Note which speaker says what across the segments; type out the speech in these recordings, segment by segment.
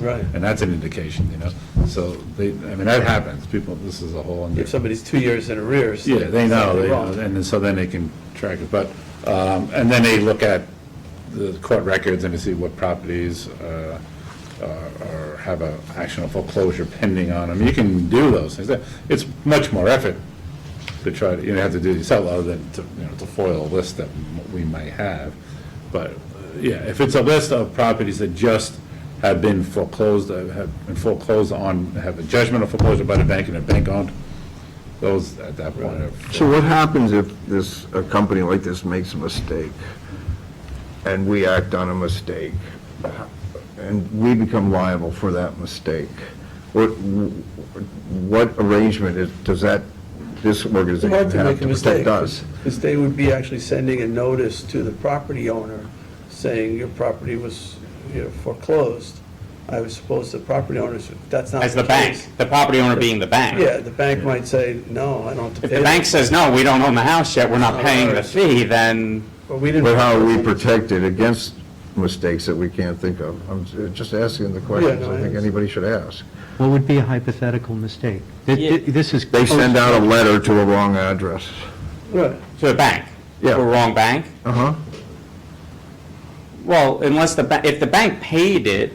Speaker 1: Right.
Speaker 2: And that's an indication, you know? So they, I mean, that happens, people, this is a whole.
Speaker 1: If somebody's two years in arrears.
Speaker 2: Yeah, they know, they know,
Speaker 1: something's wrong.
Speaker 2: and then- so then they can track it, but, um, and then they look at the court records and to see what properties, uh, are, are- have a action of foreclosure pending on them. You can do those things. It's much more effort to try to, you know, have to do yourself other than to, you know, to foil a list that m- we might have. But, uh, yeah, if it's a list of properties that just have been foreclosed, uh, have been foreclosed on, have a judgment of foreclosure by the bank and a bank owned, those at that point are.
Speaker 3: So what happens if this, a company like this makes a mistake, and we act on a mistake, and we become liable for that mistake? What, what arrangement is, does that, this
Speaker 1: It's
Speaker 3: organization
Speaker 1: hard
Speaker 3: have
Speaker 1: to make a
Speaker 3: to
Speaker 1: mistake.
Speaker 3: protect us?
Speaker 1: Because they would be actually sending a notice to the property owner saying your property was, you know, foreclosed. I was supposed the property owners, that's not.
Speaker 4: As the bank,
Speaker 1: case.
Speaker 4: the property owner being the bank.
Speaker 1: Yeah, the bank might say, no, I don't have to
Speaker 4: If
Speaker 1: pay.
Speaker 4: the bank says, no, we don't own the house yet, we're not paying the fee, then
Speaker 1: But we didn't.
Speaker 3: But how are we protected against mistakes that we can't think of? I'm just asking the questions
Speaker 1: no, I
Speaker 3: I
Speaker 1: understand.
Speaker 3: think anybody should ask.
Speaker 5: What would be a hypothetical mistake? Th- th- This is.
Speaker 3: They send out a letter to a wrong address.
Speaker 1: Right.
Speaker 4: to the bank.
Speaker 3: Yeah.
Speaker 4: The wrong bank?
Speaker 3: Uh-huh.
Speaker 4: Well, unless the, ba- if the bank paid it,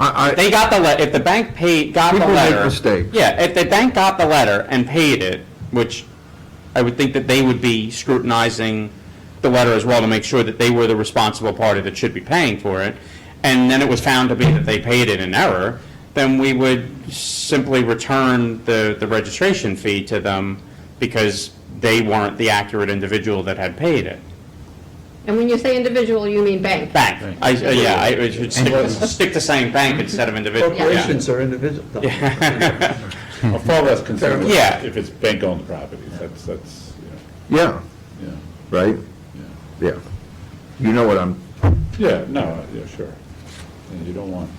Speaker 3: I, I.
Speaker 4: they got the, le- if the bank paid, got the
Speaker 3: People make
Speaker 4: letter.
Speaker 3: mistakes.
Speaker 4: Yeah, if the bank got the letter and paid it, which I would think that they would be scrutinizing the letter as well to make sure that they were the responsible party that should be paying for it, and then it was found to be that they paid it in error, then we would simply return the, the registration fee to them because they weren't the accurate individual that had paid it.
Speaker 6: And when you say individual, you mean bank.
Speaker 4: Bank, I, yeah, I I should stick, stick to saying bank instead of individual, yeah.
Speaker 1: Corporations are individual. no.
Speaker 2: I'm far less concerned with
Speaker 4: Yeah.
Speaker 2: if it's bank-owned properties, that's, that's,
Speaker 3: Yeah,
Speaker 2: you know,
Speaker 3: right? Yeah. You know what I'm,
Speaker 2: yeah. Yeah, no, uh, yeah, sure. And you don't want,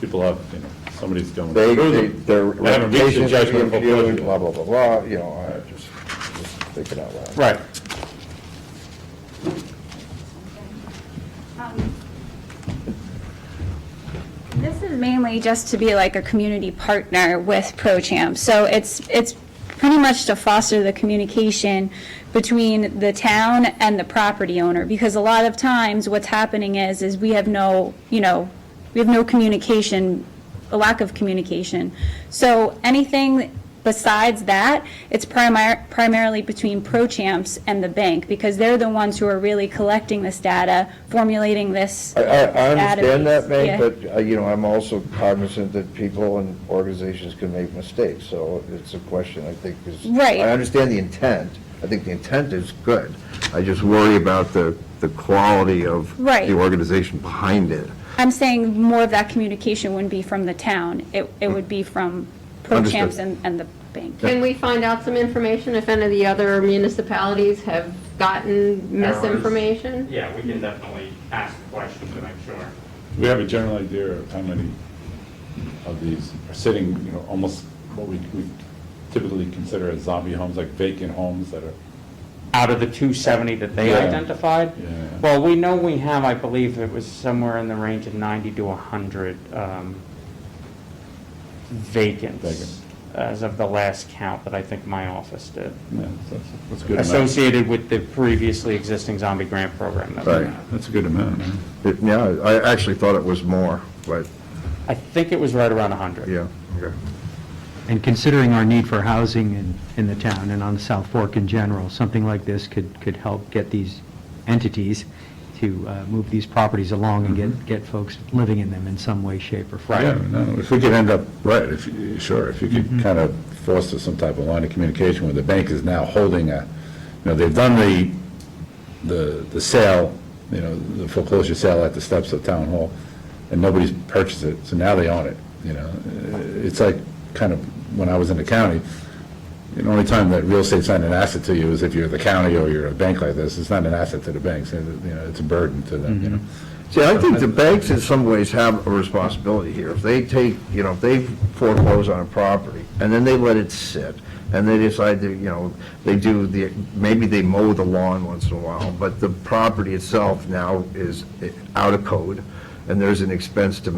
Speaker 2: people have, you know, somebody's going
Speaker 3: they,
Speaker 2: through
Speaker 3: they-
Speaker 2: them.
Speaker 3: their
Speaker 2: They haven't reached a
Speaker 3: reputation's
Speaker 2: judgment of
Speaker 3: being
Speaker 2: foreclosure.
Speaker 3: viewed, blah, blah, blah, blah, you know, I just, just think it out loud.
Speaker 4: Right.
Speaker 7: This is mainly just to be like a community partner with ProChamp. So it's, it's pretty much to foster the communication between the town and the property owner. Because a lot of times, what's happening is, is we have no, you know, we have no communication, a lack of communication. So anything besides that, it's primar- primarily between ProChamps and the bank, because they're the ones who are really collecting this data, formulating this
Speaker 3: I, I, I understand that,
Speaker 7: Database,
Speaker 3: Meg,
Speaker 7: yeah.
Speaker 3: but, uh, you know, I'm also cognizant that people and organizations can make mistakes, so it's a question, I think, is.
Speaker 7: Right.
Speaker 3: I understand the intent, I think the intent is good, I just worry about the, the quality of.
Speaker 7: Right.
Speaker 3: The organization behind it.
Speaker 7: I'm saying more of that communication wouldn't be from the town. It, it would be from
Speaker 3: Understood.
Speaker 7: ProChamps and, and the bank.
Speaker 6: Can we find out some information if any of the other municipalities have gotten misinformation?
Speaker 4: Yeah, we can definitely ask the question to make sure.
Speaker 2: We have a general idea of how many of these are sitting, you know, almost what we we typically consider as zombie homes, like vacant homes that are,
Speaker 4: Out of the 270 that they
Speaker 2: Yeah.
Speaker 4: identified?
Speaker 2: Yeah.
Speaker 4: Well, we know we have, I believe it was somewhere in the range of 90 to 100 um,
Speaker 2: Vacant.
Speaker 4: vacants as of the last count that I think my office did,
Speaker 2: yeah, that's, that's a good amount.
Speaker 4: associated with the previously existing zombie grant program that we
Speaker 3: Right.
Speaker 4: have.
Speaker 2: That's a good amount, huh?
Speaker 3: It- Yeah, I actually thought it was more, but,
Speaker 4: I think it was right around 100.
Speaker 3: yeah, okay.
Speaker 5: And considering our need for housing in, in the town and on the South Fork in general, something like this could, could help get these entities to uh, move these properties along and
Speaker 3: Mm-hmm.
Speaker 5: get, get folks living in them in some way, shape, or form.
Speaker 2: Yeah, no, if we could end up, right, if, you- sure, if you could kind of foster some type of line of communication where the bank is now holding a, you know, they've done the, the, the sale, you know, the foreclosure sale at the steps of town hall, and nobody's purchased it, so now they own it, you know? Uh, It's like, kind of, when I was in the county, the only time that real estate's not an asset to you is if you're the county or you're a bank like this, it's not an asset to the banks, and, you know, it's a burden to them, you know?
Speaker 3: See, I think the banks in some ways have a responsibility here. If they take, you know, if they foreclose on a property, and then they let it sit, and they decide to, you know, they do the, maybe they mow the lawn once in a while, but the property itself now is out of code, and there's an expense to